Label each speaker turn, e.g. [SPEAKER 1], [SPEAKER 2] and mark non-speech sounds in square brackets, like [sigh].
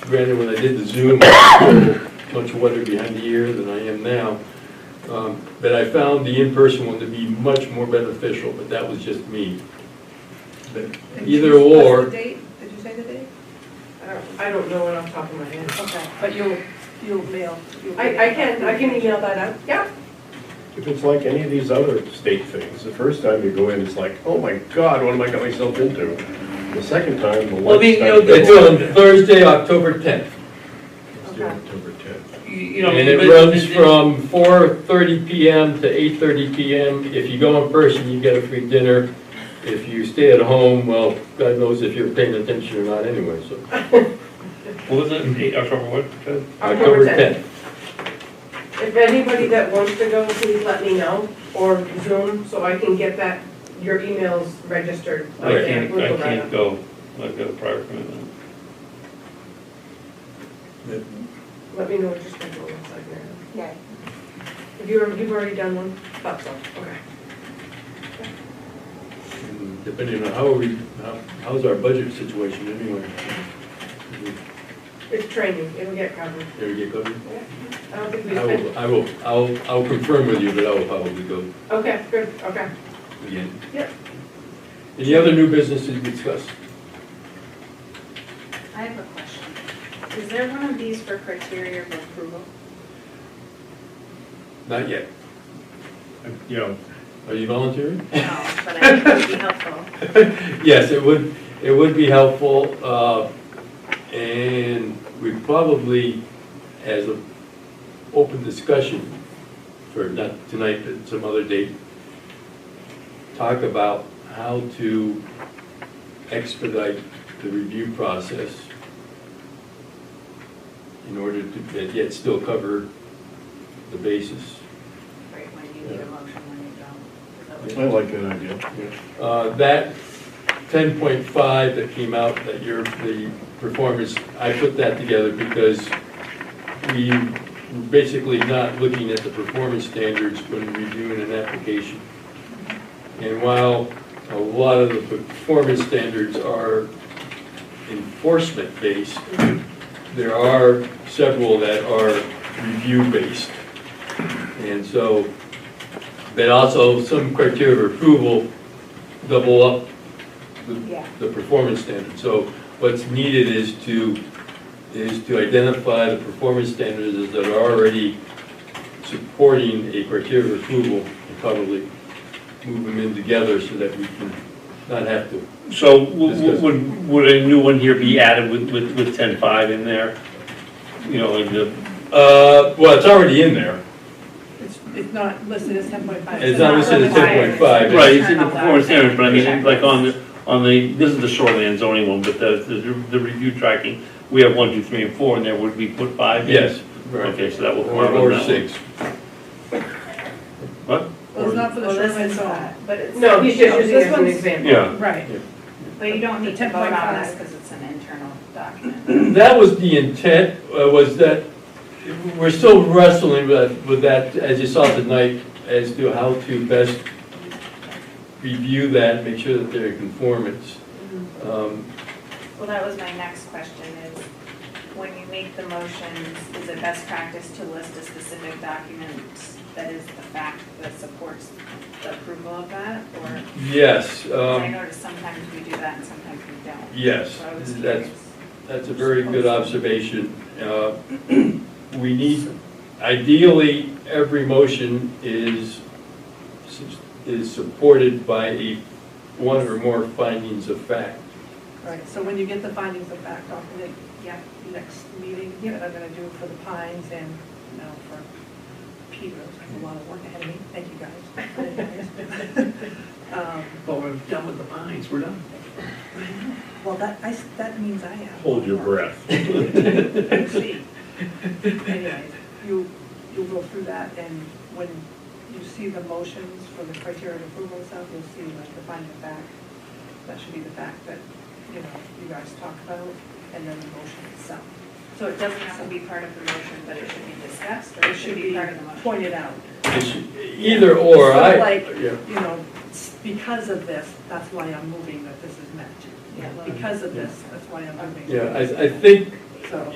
[SPEAKER 1] granted, when I did the Zoom, [coughs] I was much wetter behind the ear than I am now. Um, But I found the in-person one to be much more beneficial, but that was just me. But
[SPEAKER 2] And
[SPEAKER 1] Either
[SPEAKER 2] Tuesday- what's
[SPEAKER 1] or,
[SPEAKER 2] the date? Did you say the date?
[SPEAKER 3] I don't- I don't know it off the top of my head.
[SPEAKER 2] Okay, but you'll, you'll mail. you'll get
[SPEAKER 3] I, I
[SPEAKER 2] it.
[SPEAKER 3] can, I can email that out, yeah.
[SPEAKER 4] If it's like any of these other state things, the first time you go in, it's like, oh my God, what am I got myself into? The second time, the
[SPEAKER 5] Well,
[SPEAKER 4] lights
[SPEAKER 5] they-
[SPEAKER 4] start
[SPEAKER 5] they'll
[SPEAKER 1] it's on
[SPEAKER 4] going.
[SPEAKER 1] Thursday, October 10th.
[SPEAKER 4] It's due October 10th.
[SPEAKER 5] You- you know,
[SPEAKER 1] And it
[SPEAKER 5] but-
[SPEAKER 1] runs from 4:30 PM to 8:30 PM. If you go in person, you get a free dinner. If you stay at home, well, God knows if you're paying attention or not anyway, so.
[SPEAKER 5] What was it, Eight- October what? Ted?
[SPEAKER 3] October 10th. If anybody that wants to go, please let me know, or Zoom, so I can get that, your emails registered.
[SPEAKER 5] I
[SPEAKER 3] Okay,
[SPEAKER 5] can't,
[SPEAKER 3] we'll
[SPEAKER 5] I
[SPEAKER 3] go right
[SPEAKER 5] can't
[SPEAKER 3] up.
[SPEAKER 5] go, I've got a prior commitment.
[SPEAKER 3] Let me know what your schedule looks like now.
[SPEAKER 2] Yeah.
[SPEAKER 3] Have you, already- you've already done one? Thought so, okay.
[SPEAKER 1] And Depending on how we, how- how's our budget situation anyway?
[SPEAKER 3] It's training, it'll get covered.
[SPEAKER 1] There we get going?
[SPEAKER 3] I don't think we
[SPEAKER 1] I
[SPEAKER 3] spent,
[SPEAKER 1] will, I will, I'll, I'll confirm with you, but I will probably go
[SPEAKER 3] okay, good, okay.
[SPEAKER 1] again.
[SPEAKER 3] Yep.
[SPEAKER 1] Any other new business to discuss?
[SPEAKER 6] I have a question. Is there one of these for criteria of [laughs] approval?
[SPEAKER 1] Not yet.
[SPEAKER 4] You know,
[SPEAKER 1] Are you volunteering?
[SPEAKER 6] No, but I think it
[SPEAKER 1] [laughs]
[SPEAKER 6] would be helpful.
[SPEAKER 1] Yes, it would, it would be helpful, uh, and we probably, as an open discussion, for not tonight, but some other date, talk about how to expedite the review process in order to, yet- yet still cover the basis.
[SPEAKER 6] Right, when you need a motion, when you don't. Is that what
[SPEAKER 4] I like that idea.
[SPEAKER 1] Uh, That 10.5 that came out, that your, the performance, I put that together because we were basically not looking at the performance standards when reviewing an application. And while a lot of the performance standards are enforcement-based, there are several that are review-based. And so, but also some criteria of approval double up the,
[SPEAKER 6] Yeah.
[SPEAKER 1] the performance standard. So what's needed is to, is to identify the performance standards that are already supporting a criteria of approval and probably move them in together so that we can not have to.
[SPEAKER 5] So w-
[SPEAKER 1] Discuss.
[SPEAKER 5] w- would, would a new one here be added with, with, with ten-five in there? You know, like the,
[SPEAKER 1] Uh, well, it's already in there.
[SPEAKER 2] It's, it's not listed as ten point five.
[SPEAKER 1] It's not listed as
[SPEAKER 6] required.
[SPEAKER 1] 10.5.
[SPEAKER 5] right, it's in the performance standards, but I mean, like on the, on the, this is the shoreline zoning one, but the, the, the review tracking, we have one, two, three, and four, and there would be put five in?
[SPEAKER 1] Yes.
[SPEAKER 5] Okay, so that will.
[SPEAKER 1] Or,
[SPEAKER 5] form
[SPEAKER 1] or
[SPEAKER 5] that one.
[SPEAKER 1] six.
[SPEAKER 5] What?
[SPEAKER 2] Well, it's not for the
[SPEAKER 6] Well, this
[SPEAKER 2] shoreline
[SPEAKER 6] is
[SPEAKER 2] zone.
[SPEAKER 6] that, But it's.
[SPEAKER 3] No, he's just
[SPEAKER 2] No,
[SPEAKER 3] using
[SPEAKER 2] this
[SPEAKER 3] it as an
[SPEAKER 2] one's-
[SPEAKER 3] example.
[SPEAKER 5] Yeah,
[SPEAKER 2] Right.
[SPEAKER 6] But you don't need
[SPEAKER 2] The
[SPEAKER 6] to vote on
[SPEAKER 2] 10.5.
[SPEAKER 6] this because it's an internal
[SPEAKER 1] [clears throat]
[SPEAKER 6] document.
[SPEAKER 1] That was the intent, uh, was that, we're still wrestling with with that, as you saw tonight, as to how to best review that, make sure that they're in conformance. Um,
[SPEAKER 6] Well, that was my next question is, when you make the motions, is it best practice to list a specific document that is the fact that supports the approval of that? Or,
[SPEAKER 1] Yes,
[SPEAKER 6] 'cause I
[SPEAKER 1] um,
[SPEAKER 6] notice sometimes we do that and sometimes we don't.
[SPEAKER 1] yes,
[SPEAKER 6] So I was
[SPEAKER 1] that's,
[SPEAKER 6] curious.
[SPEAKER 1] that's a very good observation. Uh, [clears throat] We need, ideally, every motion is, is supported by a, one or more findings of fact.
[SPEAKER 2] Right, so when you get the findings of fact document,
[SPEAKER 6] Yep.
[SPEAKER 2] the next meeting, that I'm gonna do for the Pines and now for Peters, I have a lot of work ahead of me, thank you guys. Um,
[SPEAKER 7] Well, we're done with the pines, we're done.
[SPEAKER 2] Well, that, I, s- that means I have.
[SPEAKER 4] Hold your breath.
[SPEAKER 2] We'll see. Anyway, you, you'll go through that, and when you see the motions for the criteria of approval and stuff, you'll see like the finding of fact. That should be the fact that, you know, you guys talk about, and then the motion itself.
[SPEAKER 6] So it doesn't have to be part of the motion, but it should be discussed, or it should be part of the motion?
[SPEAKER 2] pointed out,
[SPEAKER 1] It's Either or,
[SPEAKER 2] Sort of
[SPEAKER 1] I.
[SPEAKER 2] like-
[SPEAKER 1] yeah.
[SPEAKER 2] you know, s- because of this, that's why I'm moving that this is met.
[SPEAKER 6] Yeah.
[SPEAKER 2] Because of this, that's why I'm moving.
[SPEAKER 1] Yeah, I, I think
[SPEAKER 2] So.